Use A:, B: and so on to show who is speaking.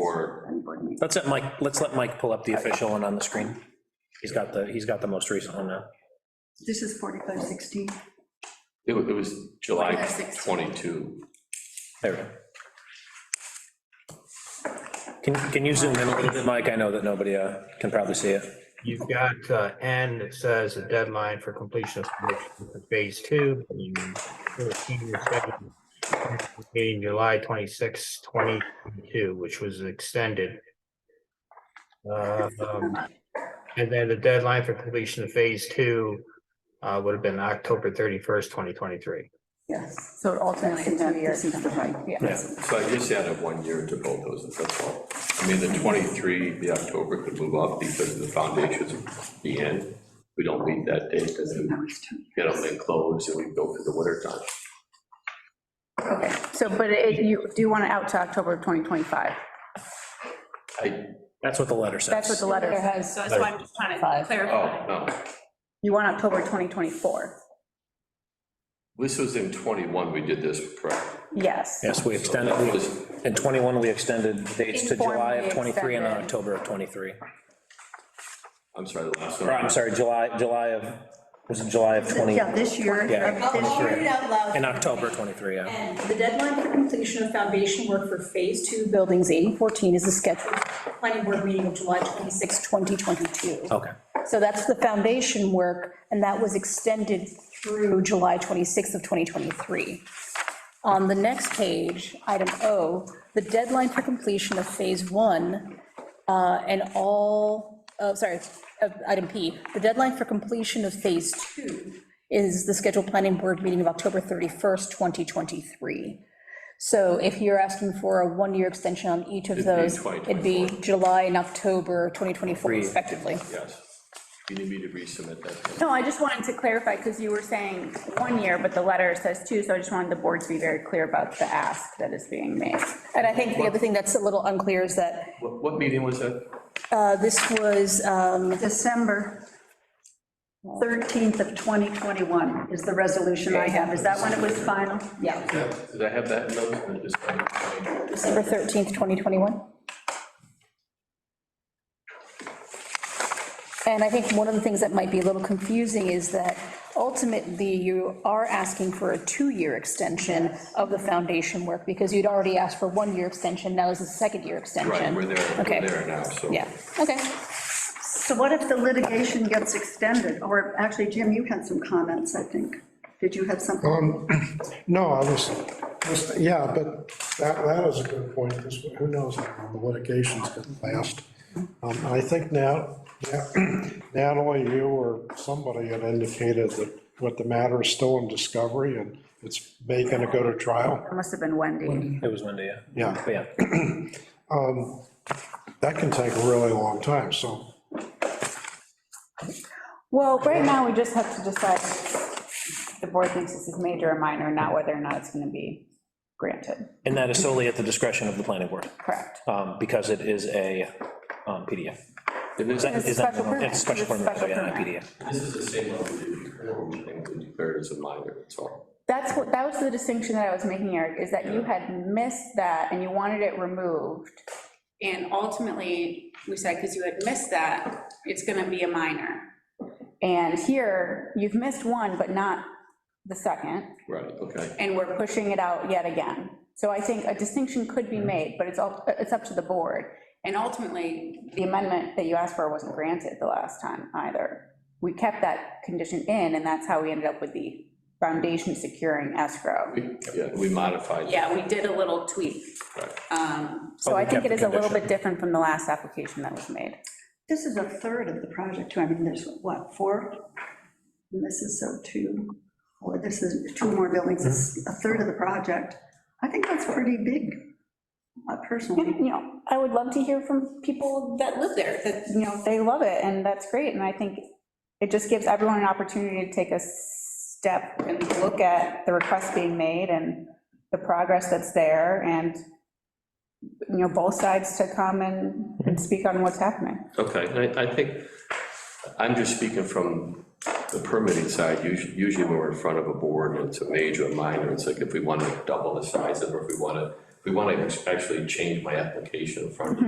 A: or,
B: Let's let Mike, let's let Mike pull up
C: Uh,
B: the official one on the screen. He's got the, he's got the most recent one now.
D: This is 4516.
A: it wa- it was July
C: July 16.
A: 22.
B: There we go. Can, can you zoom in a little bit, Mike? I know that nobody uh, can probably see it.
E: You've got uh, N, it says the deadline for completion of submission for phase two. being 13 or 7, being July 26, 2022, which was extended. Uh, um, And then the deadline for completion of phase two uh, would have been October 31st, 2023.
D: Yes.
C: So it
D: That's
C: alternates
D: the
C: in
D: time,
C: two years.
D: this is the right,
B: Yeah.
D: yeah.
A: So I just added one year to both those, that's all. I mean, the 23, the October could move up because the foundation's at the end. We don't need that date, because then,
D: Now it's two.
A: you know, they close and we go for the winter time.
C: Okay, so, but it, you, do you want it out to October of 2025?
A: I,
B: That's what the letter says.
C: That's what the letter says.
F: So that's why I'm just trying to
C: Five.
F: clarify.
A: oh, no,
C: You want October 2024?
A: this was in 21 we did this, correct?
C: Yes.
B: Yes, we extended,
A: That
B: we-
A: was-
B: in 21, we extended dates to July of 23 and then
C: Informally extended.
B: October of 23.
A: I'm sorry, the last
B: Or, I'm
A: one.
B: sorry, July, July of, was it July of 20?
D: Yeah, this year.
B: Yeah.
C: uh,
D: this
F: I'll
D: year.
F: read it out loud.
B: In October 23, yeah.
F: And the deadline for completion of foundation work for Phase 2
C: Buildings 8014 is the scheduled
F: planning board meeting of July 26, 2022.
D: Oh.
B: Okay.
G: So that's the foundation work, and that was extended through July 26th of 2023. On the next page, item O, the deadline for completion of Phase 1 uh, and all,
C: uh,
G: oh, sorry, of item P, the deadline for completion of Phase 2 is the scheduled planning board meeting of October 31st, 2023. So if you're asking for a one-year extension on each of
A: It'd be
G: those, it'd be
A: 2024.
G: July and October 2024
B: Three.
G: respectively.
A: Yes. You need me to resubmit that?
C: No, I just wanted to clarify, because you were saying one year, but the letter says two, so I just wanted the board to be very clear about the ask that is being made.
G: And I think the other thing that's a little unclear is that
A: What, what meeting was that?
G: uh, this was, um,
D: December 13th of 2021 is the resolution I have. Is that when it was final? Yeah.
A: Did I have that in those? I just-
G: December 13th, 2021. And I think one of the things that might be a little confusing is that ultimately you are asking for a two-year extension of the foundation work because you'd already asked for one-year extension, now is the second-year extension.
A: Right, we're there,
G: Okay.
A: we're there now, so.
G: Yeah, okay.
D: So what if the litigation gets extended? Or actually, Jim, you had some comments, I think. Did you have something?
H: No, I was, was- yeah, but that, that is a good point, because who knows how long the litigation's gonna last. Um, I think now, Natalie, you or somebody had indicated that what the matter is still in discovery and it's may gonna go to trial.
C: It must have been Wendy.
B: It was Wendy, yeah.
H: Yeah,
B: But yeah,
H: that can take a really long time, so
C: Well, right now, we just have to decide if the board thinks this is major or minor, not whether or not it's going to be granted.
B: and that is solely at the discretion of the planning board,
C: Correct.
B: um, because it is a um, PDF. Is that-
C: It's a
B: is that-
C: special permit.
B: It's a special
C: It's a
B: permit, so
C: special
B: yeah, not
C: permit.
B: PDF.
A: This is the same one we did before, we declared as a minor, that's all.
C: That's what, that was the distinction that I was making, Eric, is that you had missed that and you wanted it removed.
F: And ultimately, we said, because you had missed that, it's going to be a minor.
C: And here, you've missed one, but not the second.
A: Right, okay.
C: and we're pushing it out yet again. So I think a distinction could be made, but it's all, it's up to the board.
F: And ultimately,
C: The amendment that you asked for wasn't granted the last time either. We kept that condition in, and that's how we ended up with the foundation securing escrow.
A: We- Yeah, we modified.
F: yeah, we did a little tweak.
A: Right.
F: Um,
C: So
B: But we
C: I think
B: kept
C: it is
B: the
C: a little
B: condition.
C: bit different from the last application that was made.
D: This is a third of the project, too. I mean, there's, what, four? And this is so two, or this is two more buildings, it's a third of the project. I think that's pretty big, uh, personally.
C: You know, I would love to hear from people that live there, that, you know, they love it, and that's great, and I think it just gives everyone an opportunity to take a step and look at the request being made and the progress that's there, and, you know, both sides to come and, and speak on what's happening.
A: Okay, and I, I think, I'm just speaking from the permitting side, usually, usually when we're in front of a board and it's a major or minor, it's like if we want to double the size of, it, or if we want to we want to actually change my application from